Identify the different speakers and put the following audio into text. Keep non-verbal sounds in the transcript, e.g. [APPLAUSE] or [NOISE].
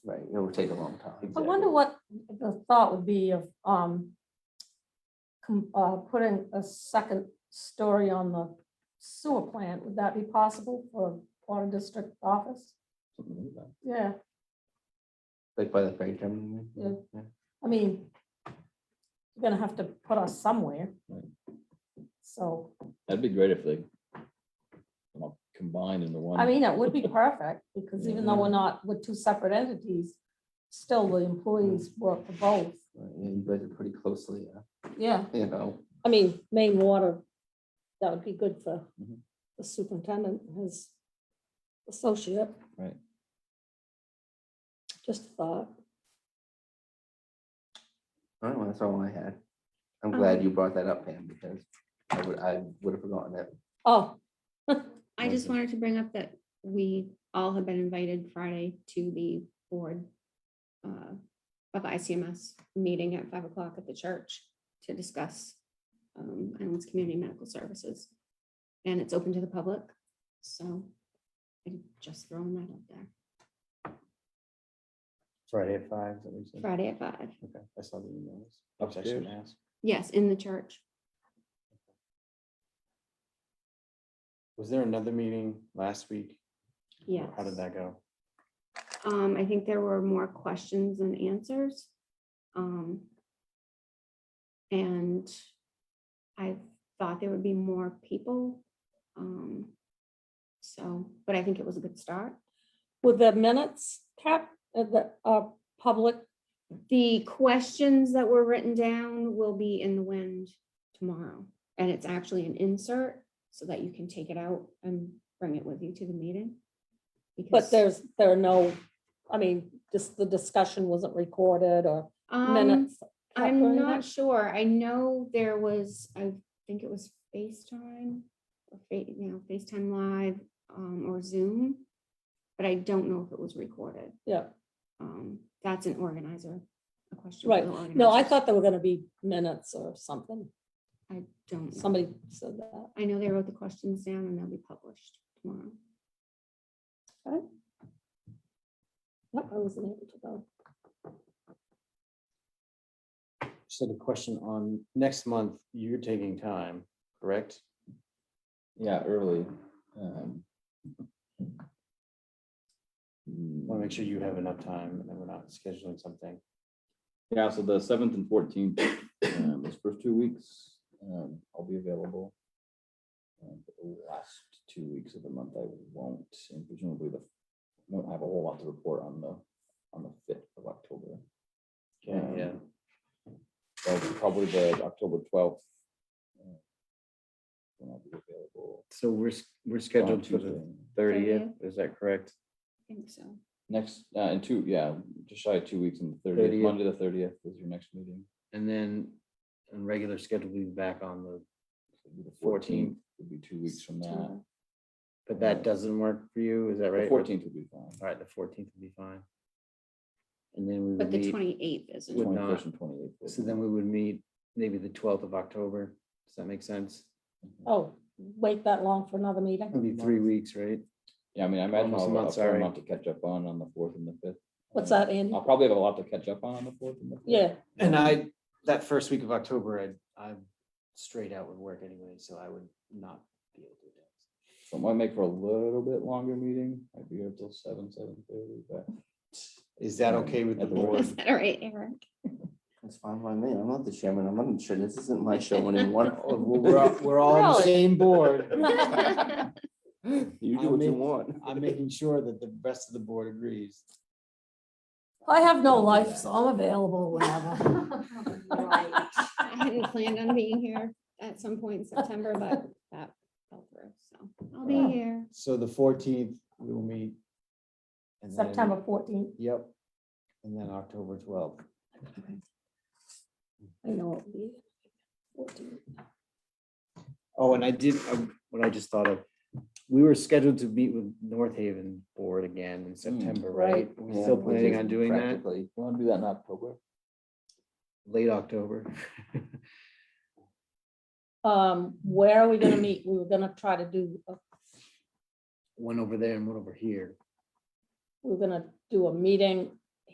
Speaker 1: it would take a long time.
Speaker 2: I wonder what the thought would be of, um, com- uh, putting a second story on the sewer plant. Would that be possible for water district office?
Speaker 1: Something like that.
Speaker 2: Yeah,
Speaker 1: Like by the freight terminal.
Speaker 2: Yeah. I mean, you're gonna have to put us somewhere.
Speaker 3: Right.
Speaker 2: So,
Speaker 3: That'd be great if they come up combined into one.
Speaker 2: I mean, it would be perfect, because even though we're not, we're two separate entities, still the employees work for both.
Speaker 1: Right, Yeah, you guys are pretty closely, uh,
Speaker 2: Yeah.
Speaker 1: you know,
Speaker 4: I mean, main water, that would be good for
Speaker 5: Mm-hmm.
Speaker 3: Mhm.
Speaker 4: the superintendent, and his associate.
Speaker 3: Right.
Speaker 4: Just a thought.
Speaker 1: I don't know, that's all I had. I'm glad you brought that up, Pam, because I would, I would have forgotten that.
Speaker 4: Oh,
Speaker 6: I just
Speaker 1: Mhm.
Speaker 6: wanted to bring up that we all have been invited Friday to the board uh, of ICMS meeting at five o'clock at the church to discuss um, Island's Community Medical Services. And it's open to the public, so I'm just throwing that out there.
Speaker 5: Friday at five, is that what you said?
Speaker 6: Friday at five,
Speaker 5: Okay, I saw the emails. I was actually gonna ask,
Speaker 6: yes, in the church.
Speaker 5: was there another meeting last week?
Speaker 6: Yes.
Speaker 5: How did that go?
Speaker 6: Um, I think there were more questions than answers. Um. And I thought there would be more people. Um. So, but I think it was a good start.
Speaker 4: with the minutes cap, uh, the, uh, public,
Speaker 6: The questions that were written down will be in the wind tomorrow. And it's actually an insert so that you can take it out and bring it with you to the meeting.
Speaker 4: but
Speaker 6: because,
Speaker 4: there's, there are no, I mean, just the discussion wasn't recorded or
Speaker 6: um,
Speaker 4: minutes. captured
Speaker 6: I'm
Speaker 4: in
Speaker 6: not
Speaker 4: it?
Speaker 6: sure. I know there was, I think it was FaceTime, or Fa- you know, FaceTime Live, um, or Zoom. But I don't know if it was recorded.
Speaker 4: Yeah,
Speaker 6: Um, that's an organizer, a question. for
Speaker 4: right.
Speaker 6: the
Speaker 4: No, I
Speaker 6: organizers.
Speaker 4: thought there were gonna be minutes or something.
Speaker 6: I don't, know.
Speaker 4: Somebody said that.
Speaker 6: I know they wrote the questions down and they'll be published tomorrow.
Speaker 4: Yep, I wasn't able to go.
Speaker 5: Just had a question on next month, you're taking time, correct?
Speaker 3: Yeah, early. um,
Speaker 5: Want to make sure you have enough time and that we're not scheduling something.
Speaker 3: hmm. Yeah, so the seventh and fourteenth, um, those first two weeks, um, I'll be available. Um, but The last two weeks of the month, I won't, and presumably the, won't have a whole lot to report on the, on the fifth of October.
Speaker 5: Okay, Yeah,
Speaker 3: So Probably the October twelfth. uh, When I'll be available.
Speaker 5: so we're, s- we're
Speaker 3: on
Speaker 5: scheduled for the
Speaker 3: Tuesday.
Speaker 5: thirtieth, is that correct?
Speaker 6: I think so.
Speaker 3: Next, uh, in two, yeah, just shy of two weeks and the
Speaker 5: 30th.
Speaker 3: thirtieth, Monday, the thirtieth is your next meeting.
Speaker 5: And then, on regular schedule, we'll be back on the,
Speaker 3: So it'll be The
Speaker 5: 14th.
Speaker 3: fourteenth would be two weeks from that.
Speaker 6: September.
Speaker 5: but that doesn't work for you, is
Speaker 3: The
Speaker 5: that right?
Speaker 3: fourteenth would be fine.
Speaker 5: All right, the fourteenth would be fine. And then we
Speaker 6: But
Speaker 5: would
Speaker 6: the
Speaker 5: meet,
Speaker 6: twenty-eighth isn't. [LAUGHS]
Speaker 5: would
Speaker 3: Twenty-first
Speaker 5: not.
Speaker 3: and twenty-eighth.
Speaker 5: so then we would meet maybe the twelfth of October. Does that make sense?
Speaker 4: Oh, wait that long for another meeting?
Speaker 5: It'll be three weeks, right?
Speaker 3: Yeah, I mean, I imagine
Speaker 5: Almost a
Speaker 3: I'll have
Speaker 5: month,
Speaker 3: a fair
Speaker 5: sorry.
Speaker 3: amount to catch up on on the fourth and the fifth.
Speaker 4: What's
Speaker 3: Um,
Speaker 4: that, Andy?
Speaker 3: I'll probably have a lot to catch up on on the fourth and the fifth.
Speaker 4: Yeah,
Speaker 5: And I, that first week of October, I, I'm straight out with work anyway, so I would not be able to do that.
Speaker 3: So it might make for a little bit longer meeting. I'd be here till seven, seven thirty, but
Speaker 5: Is that okay with the
Speaker 3: At the work.
Speaker 5: board?
Speaker 6: Is that all right, Eric?
Speaker 1: It's fine by me. I'm not the chairman. I'm not in sure. This isn't my show anymore.
Speaker 5: Oh, well,
Speaker 1: [LAUGHS]
Speaker 5: [LAUGHS] We're, all- we're all on the
Speaker 4: Really?
Speaker 5: same board.
Speaker 6: [LAUGHS]
Speaker 1: You do
Speaker 5: I'll
Speaker 1: what you
Speaker 5: make-
Speaker 1: want.
Speaker 5: I'm making sure that the rest of the board agrees.
Speaker 2: [LAUGHS] I have no life, so I'm available
Speaker 4: [LAUGHS]
Speaker 2: whenever.
Speaker 6: I hadn't planned on being here at some point in September, but that fell through, so I'll
Speaker 3: Wow.
Speaker 6: be here.
Speaker 5: So the fourteenth, we will meet. and then-
Speaker 2: September fourteenth,
Speaker 5: Yep. And then October twelfth.
Speaker 4: I know. it'll be 14.
Speaker 5: Oh, and I did, um, what I just thought of, we were scheduled to meet with North Haven Board again in September, right?
Speaker 4: Right.
Speaker 5: We're Still
Speaker 1: Yeah, which
Speaker 5: planning
Speaker 1: is
Speaker 5: on doing that,
Speaker 1: practically-
Speaker 3: you want to do that in October?
Speaker 5: late October.
Speaker 4: Um, where are we gonna meet? We were gonna try to do, a-
Speaker 5: One over there and one over here.
Speaker 4: we were gonna do a meeting